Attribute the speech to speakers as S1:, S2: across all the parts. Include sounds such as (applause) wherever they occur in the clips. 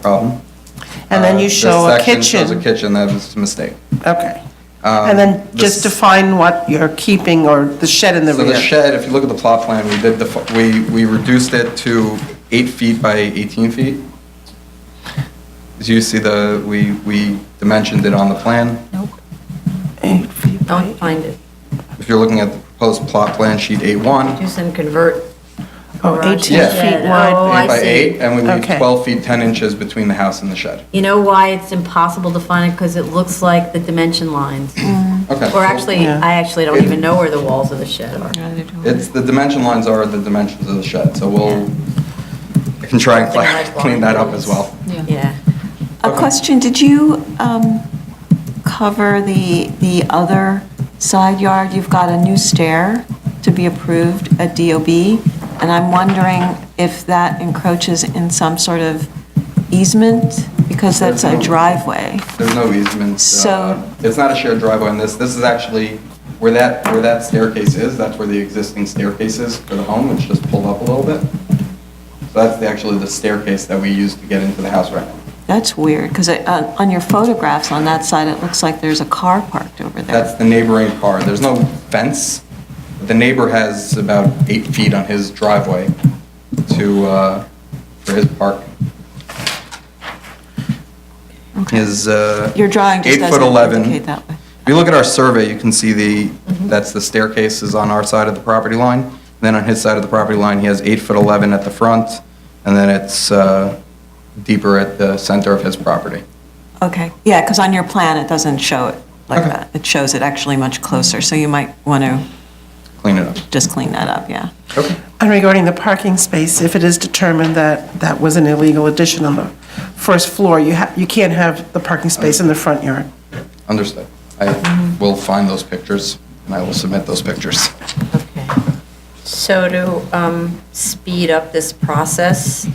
S1: problem.
S2: And then
S1: Uh,
S2: you
S1: this
S2: show a
S1: section shows a
S2: kitchen.
S1: kitchen, that was a mistake.
S2: Okay.
S1: Um,
S2: And then
S1: this-
S2: just define what you're keeping or the shed in the
S1: So the
S2: rear.
S1: shed, if you look at the plot plan, we did, the we, we reduced it to eight feet by 18 feet. As you see the, we, we dimensioned it on the plan.
S3: Nope,
S2: Eight feet by
S3: don't find it.
S1: If you're looking at the proposed plot plan sheet A1,
S3: Use and convert.
S2: Oh,
S3: garage
S2: 18
S1: Yeah.
S3: shed.
S2: feet wide.
S3: Oh,
S1: eight by
S3: I
S1: eight,
S3: see.
S1: and we leave
S2: Okay.
S1: 12 feet 10 inches between the house and the shed.
S3: You know why it's impossible to find it? Because it looks like the dimension lines.
S1: Okay.
S3: Or actually,
S2: Yeah.
S3: I actually don't even know where the walls of the shed are.
S1: It's, the dimension lines are the dimensions of the shed, so we'll, I can try and cla- clean that up as well.
S3: Yeah.
S4: A question, did you um, cover the, the other side yard? You've got a new stair to be approved at DOB, and I'm wondering if that encroaches in some sort of easement, because that's a driveway.
S1: There's no easement. uh,
S4: So-
S1: It's not a shared driveway on this. This is actually where that, where that staircase is, that's where the existing staircase is for the home, which just pulled up a little bit. So that's the- actually the staircase that we use to get into the house right now.
S4: That's weird, because on your photographs on that side, it looks like there's a car parked over there.
S1: That's the neighboring car. There's no fence. The neighbor has about eight feet on his driveway to, uh, for his park. His, uh.
S4: Your drawing just
S1: eight foot
S4: doesn't
S1: 11.
S4: indicate that way.
S1: If you look at our survey, you can see the, that's the staircase is on our side of the property line. Then on his side of the property line, he has eight foot 11 at the front, and then it's, uh, deeper at the center of his property.
S4: Okay, yeah, because on your plan, it doesn't show it like
S1: Okay.
S4: that. It shows it actually much closer, so you might want to
S1: Clean it up.
S4: just clean that up, yeah.
S1: Okay.
S2: And regarding the parking space, if it is determined that that was an illegal addition on the first floor, you ha, you can't have the parking space in the front yard.
S1: Understood. I will find those pictures, and I will submit those pictures.
S3: Okay. So to um, speed up this process,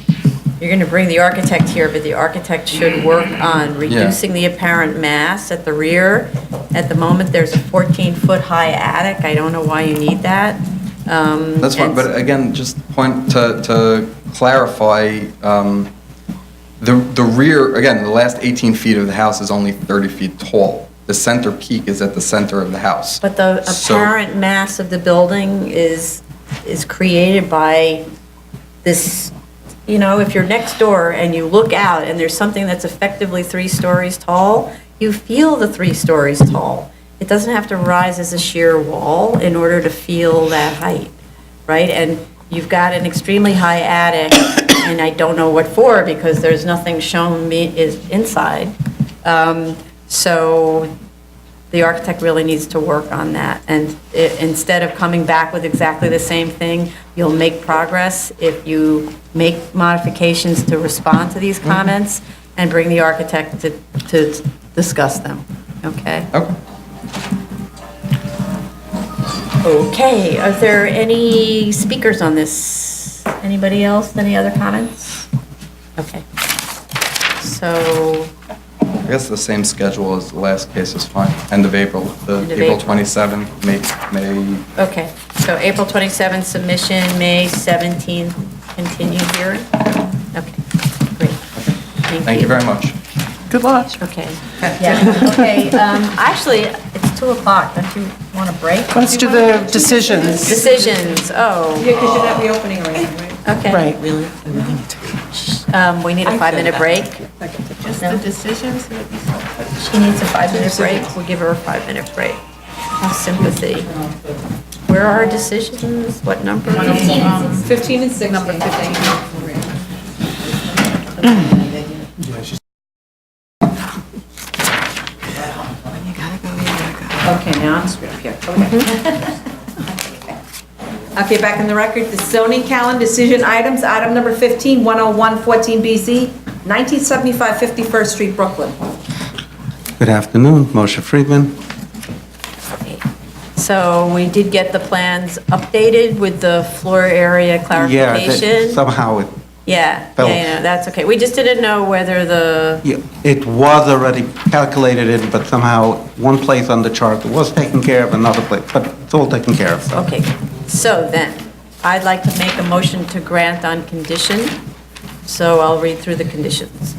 S3: you're going to bring the architect here, but the architect should work on reducing the apparent mass at the rear. At the moment, there's a 14-foot high attic. I don't know why you need that. Um,
S1: That's fine, but again, just point to, to clarify, um, the, the rear, again, the last 18 feet of the house is only 30 feet tall. The center peak is at the center of the house.
S3: But the
S1: So-
S3: apparent mass of the building is, is created by this, you know, if you're next door and you look out and there's something that's effectively three stories tall, you feel the three stories tall. It doesn't have to rise as a sheer wall in order to feel that height, right? And you've got an extremely high attic, and I don't know what for because there's nothing shown me is inside. Um, So the architect really needs to work on that. And i- instead of coming back with exactly the same thing, you'll make progress if you make modifications to respond to these comments and bring the architect to, to discuss them, okay?
S1: Okay.
S3: Okay, are there any speakers on this? Anybody else, any other comments? Okay. So,
S1: I guess the same schedule as the last case is fine. End of April, the
S3: End of
S1: April
S3: April.
S1: 27th, May, May,
S3: okay, so April 27th submission, May 17th continued hearing? Okay, great.
S1: thank you very much.
S2: Good luck.
S5: (laughs)
S3: Okay, yeah, okay, um, actually, it's 2 o'clock, don't you want a break?
S2: Let's do the decisions.
S3: Decisions, oh,
S5: Because you're not reopening or anything, right?
S3: okay.
S2: Right.
S3: Um, we need a five-minute break.
S5: Just
S3: No.
S5: the decisions would be so.
S3: She needs a five-minute break. We'll give her a five-minute break. Have sympathy. Where are our decisions? What number?
S5: 15 and 16. Number 15. Okay, now I'm screwed up here. Okay. Okay, back in the record, the zoning calendar decision items, item number oh 15, 101, 14 BZ, 1975 51st Street, Brooklyn.
S1: Good afternoon, Moshe Friedman.
S3: So we did get the plans updated with the floor area clarification.
S6: Somehow it,
S3: Yeah, yeah,
S6: fell.
S3: yeah, that's okay. We just didn't know whether the,
S6: yeah, it was already calculated in, but somehow one place on the chart was taken care of, another place, but it's all taken care of. so.
S3: okay. So then, I'd like to make a motion to grant on condition. So I'll read through the conditions.